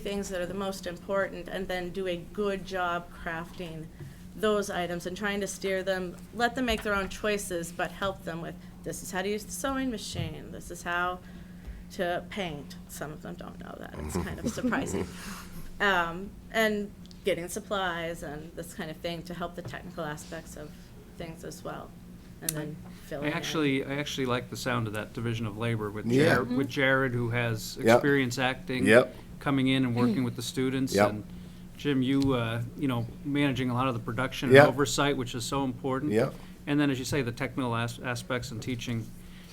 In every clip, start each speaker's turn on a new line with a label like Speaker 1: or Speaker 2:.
Speaker 1: things that are the most important and then do a good job crafting those items and trying to steer them, let them make their own choices, but help them with, this is how to use the sewing machine, this is how to paint. Some of them don't know that, it's kind of surprising. Um, and getting supplies and this kind of thing to help the technical aspects of things as well. And then filling
Speaker 2: I
Speaker 1: in.
Speaker 2: actually, I actually like the sound of that division of labor with
Speaker 3: Yeah.
Speaker 2: Jared, with Jared, who has
Speaker 3: Yep.
Speaker 2: experience acting.
Speaker 3: Yep.
Speaker 2: Coming in and working with the students.
Speaker 3: Yep.
Speaker 2: and Jim, you, uh, you know, managing a lot of the production and
Speaker 3: Yep.
Speaker 2: oversight, which is so important.
Speaker 3: Yep.
Speaker 2: And then, as you say, the technical as- aspects and teaching.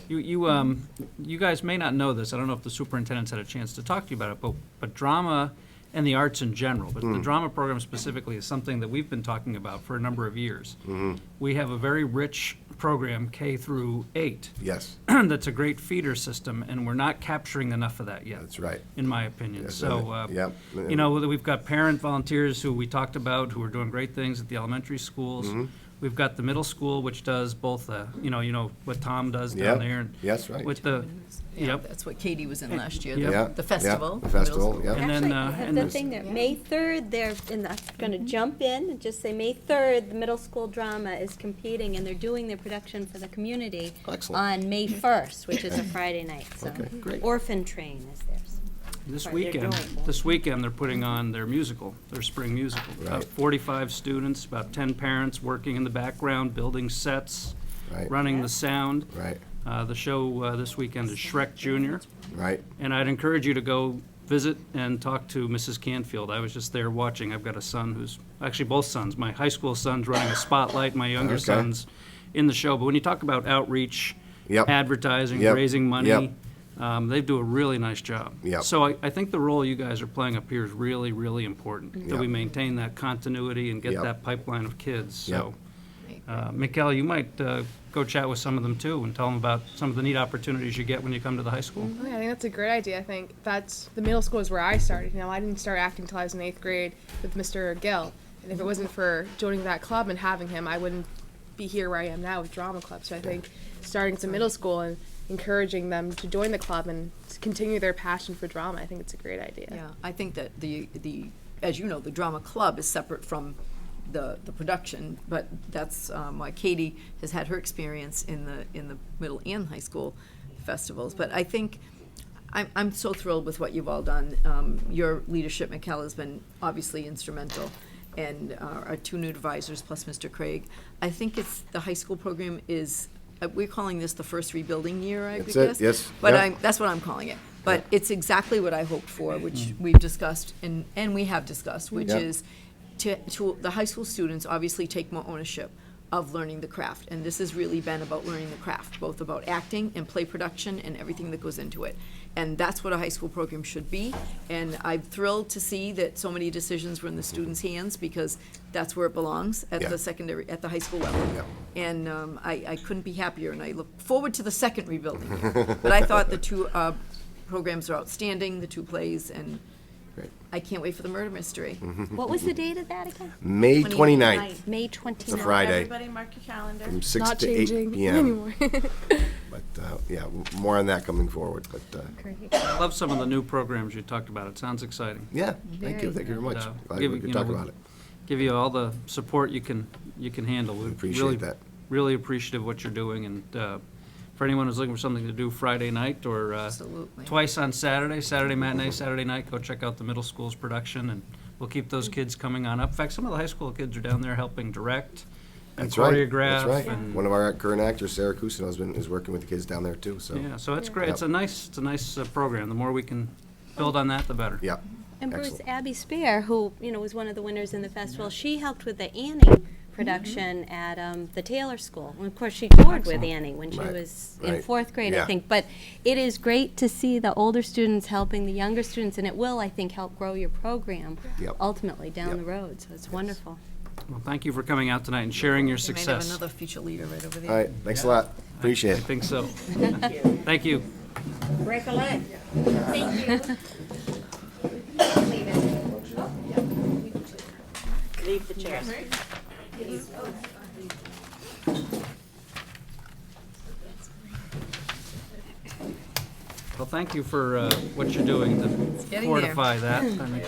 Speaker 2: You, you, um, you guys may not know this, I don't know if the superintendent's had a chance to talk to you about it, but, but drama and the arts in general, but
Speaker 3: Mm.
Speaker 2: the drama program specifically is something that we've been talking about for a number of years.
Speaker 3: Mm.
Speaker 2: We have a very rich program, K through eight,
Speaker 3: Yes,
Speaker 2: that's a great feeder system, and we're not capturing enough of that yet.
Speaker 3: That's right.
Speaker 2: In my opinion,
Speaker 3: Yes,
Speaker 2: so,
Speaker 3: I
Speaker 2: uh,
Speaker 3: think- yep.
Speaker 2: you know, whether we've got parent volunteers who we talked about, who are doing great things at the elementary schools.
Speaker 3: Mm-hmm.
Speaker 2: We've got the middle school, which does both, uh, you know, you know, what Tom does down
Speaker 3: Yep.
Speaker 2: there. and
Speaker 3: Yes, right.
Speaker 2: With the,
Speaker 4: Yeah,
Speaker 2: yep,
Speaker 4: that's what Katie was in last year,
Speaker 2: Yep.
Speaker 3: yeah.
Speaker 4: the- the festival.
Speaker 3: The festival,
Speaker 4: middle
Speaker 2: And
Speaker 3: yeah.
Speaker 2: then,
Speaker 5: Actually,
Speaker 2: uh,
Speaker 5: I have
Speaker 2: and
Speaker 5: the
Speaker 2: this-
Speaker 5: thing there, May 3rd, they're, and that's going
Speaker 3: Mm-hmm.
Speaker 5: to jump in and just say, May 3rd, the middle school drama is competing, and they're doing their production for the community
Speaker 3: Excellent. Mm-hmm.
Speaker 5: on May 1st, which is a Friday night, so.
Speaker 3: Okay, great. Mm-hmm.
Speaker 5: Orphan Train is theirs.
Speaker 2: this
Speaker 5: Sorry, they're
Speaker 2: weekend,
Speaker 5: doing-
Speaker 2: this weekend, they're putting on their musical, their spring musical. About
Speaker 3: Right.
Speaker 2: forty-five students, about ten parents working in the background, building sets,
Speaker 3: Right.
Speaker 2: running the sound.
Speaker 3: Right,
Speaker 2: Uh, The show uh, this weekend is Shrek Junior,
Speaker 3: right.
Speaker 2: and I'd encourage you to go visit and talk to Mrs. Canfield. I was just there watching. I've got a son who's, actually both sons, my high school son's running a spotlight, my younger
Speaker 3: Okay.
Speaker 2: son's in the show. But when you talk about outreach,
Speaker 3: Yep.
Speaker 2: advertising,
Speaker 3: Yep.
Speaker 2: raising money,
Speaker 3: Yep.
Speaker 2: um, they do a really nice job.
Speaker 3: Yep.
Speaker 2: So I, I think the role you guys are playing up here is really, really important, that we
Speaker 3: Yep.
Speaker 2: maintain that continuity and get
Speaker 3: Yep.
Speaker 2: that pipeline of kids, so.
Speaker 3: Yep.
Speaker 2: Uh, Mikel, you might uh, go chat with some of them too and tell them about some of the neat opportunities you get when you come to the high school.
Speaker 6: Okay, I think that's a great idea. I think that's the middle school is where I started. Now I didn't start acting until I was in eighth grade with Mr. Gill, and if it wasn't for joining that club and having him, I wouldn't be here where I am now with drama club. So I think starting to middle school and encouraging them to join the club and to continue their passion for drama, I think it's a great idea.
Speaker 4: Yeah, I think that the, the, as you know, the drama club is separate from the, the production, but that's um, why Katie has had her experience in the, in the middle and high school festivals. But I think, I'm, I'm so thrilled with what you've all done. Um, Your leadership, Mikel, has been obviously instrumental, and uh, our two new advisors, plus Mr. Craig. I think it's, the high school program is, uh, we're calling this the first rebuilding year, I
Speaker 3: That's
Speaker 4: guess.
Speaker 3: it, yes,
Speaker 4: But
Speaker 3: yeah.
Speaker 4: I'm, that's what I'm calling it. But it's exactly what I hoped for, which we've discussed and, and we have discussed, which
Speaker 3: Yeah.
Speaker 4: is to, to, the high school students obviously take more ownership of learning the craft. And this has really been about learning the craft, both about acting and play production and everything that goes into it. And that's what a high school program should be. And I'm thrilled to see that so many decisions were in the students' hands because that's where it belongs, at
Speaker 3: Yeah.
Speaker 4: the secondary, at the high school level.
Speaker 3: Yeah.
Speaker 4: And um, I, I couldn't be happier, and I look forward to the second rebuilding. year. But I thought the two uh, programs are outstanding, the two plays, and
Speaker 3: Great. Mm-hmm.
Speaker 4: I can't wait for the murder mystery.
Speaker 5: What was the date of that again?
Speaker 3: May 29th,
Speaker 5: May 29th.
Speaker 3: it's a Friday,
Speaker 1: Everybody mark your calendar.
Speaker 3: from 6
Speaker 6: Not
Speaker 3: to 8
Speaker 6: changing
Speaker 3: PM.
Speaker 6: anymore.
Speaker 3: But, uh, yeah, w- more on that coming forward, but, uh,
Speaker 2: I love some of the new programs you talked about. It sounds exciting.
Speaker 3: yeah, thank you,
Speaker 5: Very
Speaker 3: thank you very much.
Speaker 2: Uh,
Speaker 3: Glad
Speaker 2: give-
Speaker 3: we
Speaker 2: you
Speaker 3: could talk
Speaker 2: know,
Speaker 3: about it.
Speaker 2: Give you all the support you can, you can handle. We
Speaker 3: Appreciate
Speaker 2: really-
Speaker 3: that.
Speaker 2: Really appreciative of what you're doing, and uh, for anyone who's looking for something to do Friday night or uh,
Speaker 4: Absolutely.
Speaker 2: twice on Saturday, Saturday matinee, Saturday night, go check out the middle school's production, and we'll keep
Speaker 4: Mm-hmm.
Speaker 2: those kids coming on up. In fact, some of the high school kids are down there helping direct and
Speaker 3: That's right, that's
Speaker 2: choreograph.
Speaker 3: right.
Speaker 2: and-
Speaker 3: One of our current actors, Sarah Cousineau, has been, is working with the kids down there too, so.
Speaker 2: Yeah, so it's great.
Speaker 3: Yep.
Speaker 2: It's a nice, it's a nice uh, program. The more we can build on that, the better.
Speaker 3: Yeah,
Speaker 5: And Bruce,
Speaker 3: Excellent.
Speaker 5: Abby Spear, who, you know, was one of the winners in the festival, she helped with the Annie
Speaker 3: Mm-hmm.
Speaker 5: production at um, the Taylor School. And of course, she toured with Annie when she
Speaker 3: Right,
Speaker 5: was in
Speaker 3: right,
Speaker 5: fourth grade, I
Speaker 3: yeah.
Speaker 5: think. But it is great to see the older students helping the younger students, and it will, I think, help grow your program
Speaker 3: Yep.
Speaker 5: ultimately down
Speaker 3: Yep.
Speaker 5: the road, so it's wonderful.
Speaker 2: Well, thank you for coming out tonight and sharing your
Speaker 4: We might have
Speaker 2: success.
Speaker 4: another future leader right over there.
Speaker 3: all right, thanks a lot, appreciate
Speaker 2: I
Speaker 3: it.
Speaker 2: think so. Thank you.
Speaker 1: Leave the chairs.
Speaker 2: The Well, thank you for uh, what you're doing to
Speaker 4: getting there.
Speaker 2: fortify that. I think